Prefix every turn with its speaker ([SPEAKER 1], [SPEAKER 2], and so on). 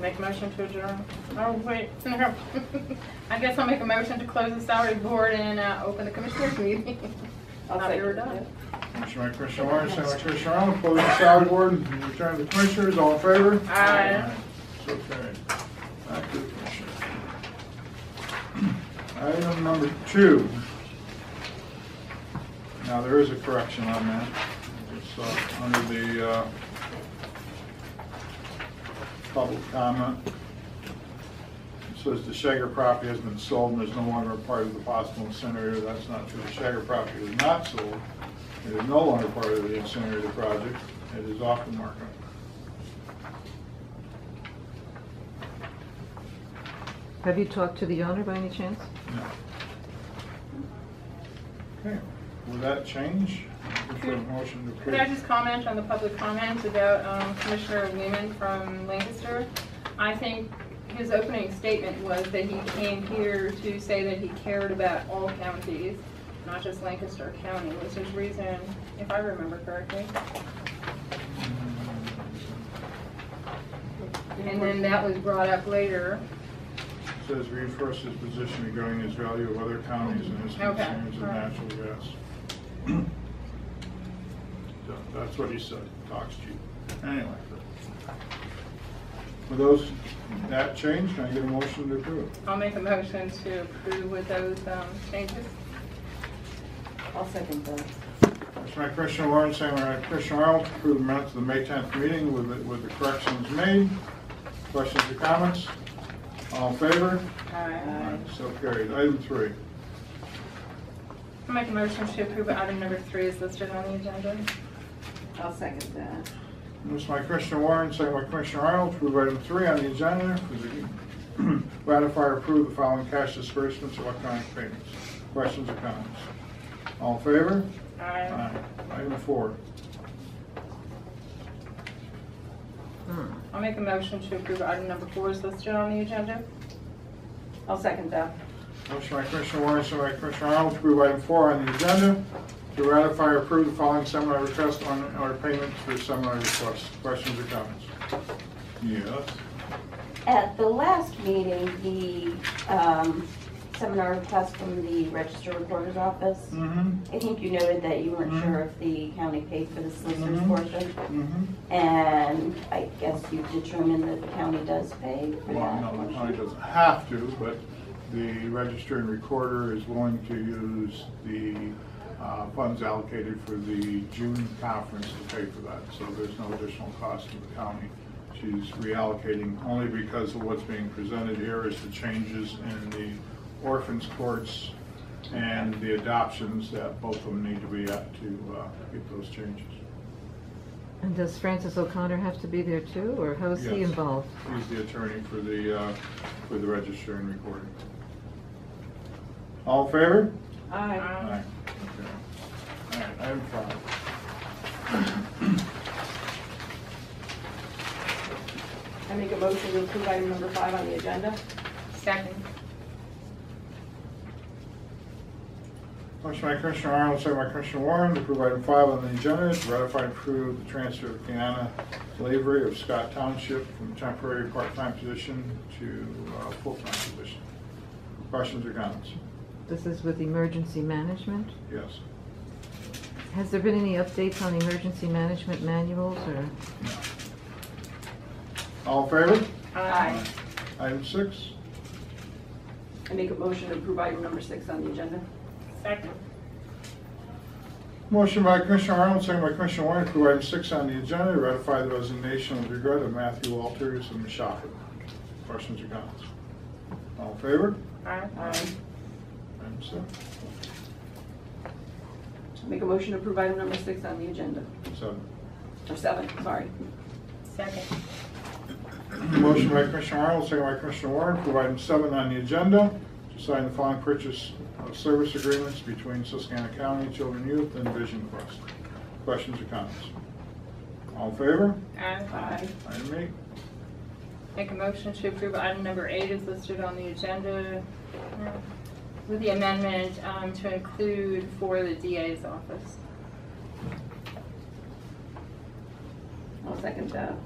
[SPEAKER 1] Make a motion to adjourn. Oh, wait, no. I guess I'll make a motion to close the salary board and uh, open the commissioners meeting.
[SPEAKER 2] I'll
[SPEAKER 1] Thought we were
[SPEAKER 2] second
[SPEAKER 1] done.
[SPEAKER 3] Motion by Commissioner Warren, second by Commissioner Arnold, close the salary board and return to the commissioners, all in favor?
[SPEAKER 1] Aye.
[SPEAKER 3] So carried. Back to the commissioners. Item number two. Now, there is a correction on that. It's uh, under the uh, public comment. It Says the Shager property has been sold and is no longer a part of the possible incinerator. That's not true. The Shager property is not sold. It is no longer part of the incinerator project. It is off the market.
[SPEAKER 4] Have you talked to the owner by any chance?
[SPEAKER 3] No. Okay, with that change, we put a motion to
[SPEAKER 1] Could I just
[SPEAKER 3] approve.
[SPEAKER 1] comment on the public comment about um, Commissioner Newman from Lancaster? I think his opening statement was that he came here to say that he cared about all counties, not just Lancaster County, was his reason, if I remember correctly. And then that was brought up later.
[SPEAKER 3] Says reinforce his position regarding his value of other counties and his
[SPEAKER 1] Okay,
[SPEAKER 3] concerns of
[SPEAKER 1] all right.
[SPEAKER 3] natural gas. So, That's what he said, talks cheap. Anyway. With those, that change, can I get a motion to approve?
[SPEAKER 1] I'll make a motion to approve with those um, changes.
[SPEAKER 2] that. I'll second that.
[SPEAKER 3] Motion by Commissioner Warren, second by Commissioner Arnold, to approve the minutes of the May 10th meeting with, the- with the corrections made. Questions or comments? All in favor? All
[SPEAKER 1] Aye.
[SPEAKER 3] right, So carried. Item three.
[SPEAKER 1] I'll make a motion to approve item number three is listed on the agenda.
[SPEAKER 2] I'll second that.
[SPEAKER 3] Motion by Commissioner Warren, second by Commissioner Arnold, to approve item three on the agenda, is to ratify or approve the following cash disbursements of electronic payments. Questions or comments? All in favor?
[SPEAKER 1] Aye.
[SPEAKER 3] Item four.
[SPEAKER 4] Hmm.
[SPEAKER 1] I'll make a motion to approve item number four is listed on the agenda.
[SPEAKER 2] I'll second that.
[SPEAKER 3] Motion by Commissioner Warren, second by Commissioner Arnold, to approve item four on the agenda, to ratify or approve the following seminar request on our payments for seminar requests. Questions or comments? Yes.
[SPEAKER 5] At the last meeting, the um, seminar request from the Register Recorder's Office,
[SPEAKER 3] Mm-hmm,
[SPEAKER 5] I think you noted that you weren't
[SPEAKER 3] Mhm.
[SPEAKER 5] sure if the county paid for the solicitor's
[SPEAKER 3] Mhm.
[SPEAKER 5] portion,
[SPEAKER 3] mm-hmm.
[SPEAKER 5] and I guess you determined that the county does pay for
[SPEAKER 3] Well,
[SPEAKER 5] that
[SPEAKER 3] no, the
[SPEAKER 5] portion?
[SPEAKER 3] county doesn't have to, but the register and recorder is willing to use the uh, funds allocated for the June conference to pay for that, so there's no additional cost to the county. She's reallocating only because of what's being presented here is the changes in the orphans courts and the adoptions that both of them need to be at to uh, get those changes.
[SPEAKER 4] And does Francis O'Connor have to be there too, or how is he
[SPEAKER 3] Yes.
[SPEAKER 4] involved?
[SPEAKER 3] He's the attorney for the, uh, for the register and recorder. All in favor?
[SPEAKER 2] Aye.
[SPEAKER 1] Aye.
[SPEAKER 3] Okay. All right, item five.
[SPEAKER 2] I make a motion to approve item number five on the agenda.
[SPEAKER 1] Second.
[SPEAKER 3] Motion by Commissioner Arnold, second by Commissioner Warren, to approve item five on the agenda, to ratify and approve the transfer of Kiana Lavery of Scott Township from temporary part-time position to uh, full-time position. Questions or comments?
[SPEAKER 4] This is with emergency management.
[SPEAKER 3] Yes.
[SPEAKER 4] Has there been any updates on emergency management manuals or?
[SPEAKER 3] No. All in favor?
[SPEAKER 2] Aye.
[SPEAKER 3] Item six.
[SPEAKER 2] I make a motion to approve item number six on the agenda.
[SPEAKER 1] Second.
[SPEAKER 3] Motion by Commissioner Arnold, second by Commissioner Warren, to approve item six on the agenda, to ratify the resignation with regret of Matthew Walters and Mashaka. Questions or comments? All in favor?
[SPEAKER 1] Aye.
[SPEAKER 2] Aye.
[SPEAKER 3] Item six.
[SPEAKER 2] Make a motion to approve item number six on the agenda,
[SPEAKER 3] Seven.
[SPEAKER 2] or seven, sorry.
[SPEAKER 1] Second.
[SPEAKER 3] Motion by Commissioner Arnold, second by Commissioner Warren, to approve item seven on the agenda, to sign the following purchase of service agreements between Susquehanna County Children Youth and Vision Quest. Questions or comments? All in favor?
[SPEAKER 1] Aye.
[SPEAKER 2] Aye.
[SPEAKER 3] Item eight.
[SPEAKER 1] Make a motion to approve item number eight is listed on the agenda uh, with the amendment um, to include for the DA's office.
[SPEAKER 2] I'll second that.